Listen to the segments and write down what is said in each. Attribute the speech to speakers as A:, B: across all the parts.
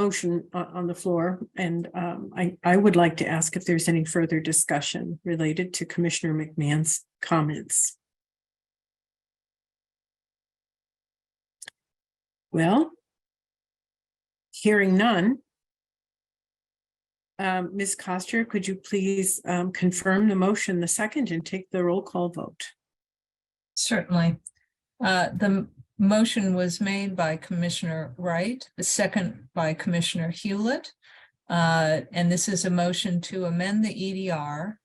A: motion on, on the floor, and um, I, I would like to ask if there's any further discussion related to Commissioner McMahon's comments. Well, hearing none. Um, Ms. Coster, could you please um, confirm the motion, the second, and take the roll call vote?
B: Certainly. Uh, The m- motion was made by Commissioner Wright, the second by Commissioner Hewlett. Uh, And this is a motion to amend the EDR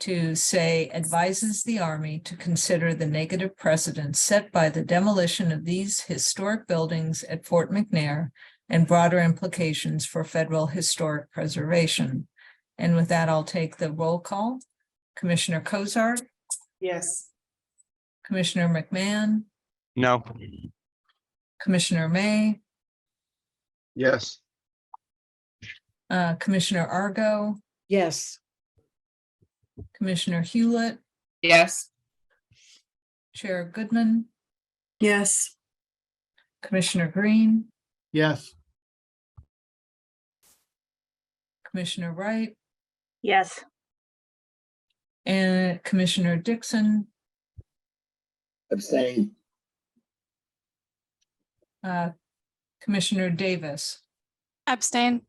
B: to say advises the Army to consider the negative precedent set by the demolition of these historic buildings at Fort McNair and broader implications for federal historic preservation. And with that, I'll take the roll call. Commissioner Kozart,
A: Yes.
B: Commissioner McMahon,
C: No.
B: Commissioner May,
C: Yes.
B: uh, Commissioner Argo,
D: Yes.
B: Commissioner Hewlett,
D: Yes.
B: Chair Goodman,
A: Yes,
B: Commissioner Green,
C: Yes.
B: Commissioner Wright,
E: Yes,
B: and Commissioner Dixon,
F: abstain,
B: uh, Commissioner Davis.
G: Abstain.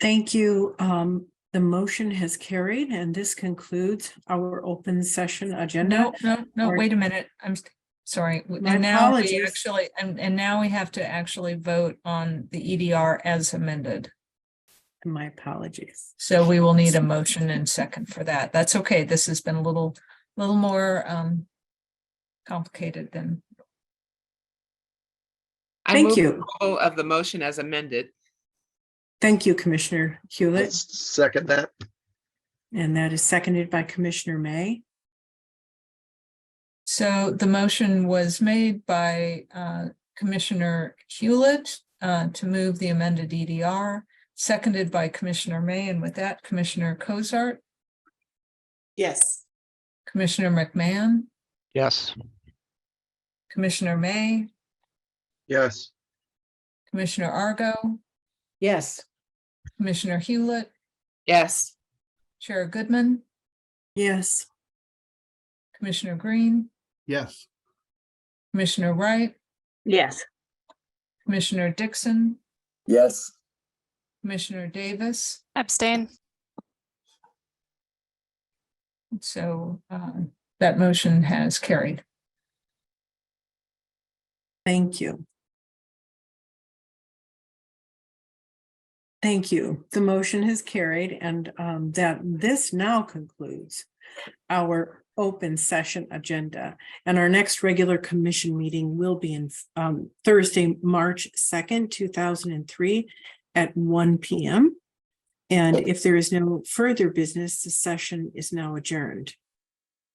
A: thank you. Um, the motion has carried, and this concludes our open session agenda.
B: No, no, no,
A: or-
B: wait a minute. I'm s- sorry. W-
A: My
B: And now we
A: apologies.
B: actually, and, and now we have to actually vote on the EDR as amended.
A: My apologies.
B: So we will need a motion and second for that. That's okay. This has been a little, little more, um, complicated than
D: I
A: Thank
D: move
A: you.
D: approval Of the motion as amended.
A: Thank you, Commissioner Hewlett,
C: Let's second that.
A: and that is seconded by Commissioner May.
B: So the motion was made by uh, Commissioner Hewlett uh, to move the amended EDR, seconded by Commissioner May, and with that, Commissioner Cozart,
H: Yes,
B: Commissioner McMahon,
C: Yes.
B: Commissioner May,
C: Yes.
B: Commissioner Argo,
D: Yes.
B: Commissioner Hewlett,
H: yes,
B: Chair Goodman,
A: Yes,
B: Commissioner Green,
C: Yes.
B: Commissioner Wright,
E: yes,
B: Commissioner Dixon,
F: yes.
B: Commissioner Davis,
G: Abstain.
B: so uh, that motion has carried.
A: thank you. Thank you. The motion has carried and um, that this now concludes our open session agenda. And our next regular commission meeting will be in um, Thursday, March second, two thousand and three at one P M. And if there is no further business, the session is now adjourned.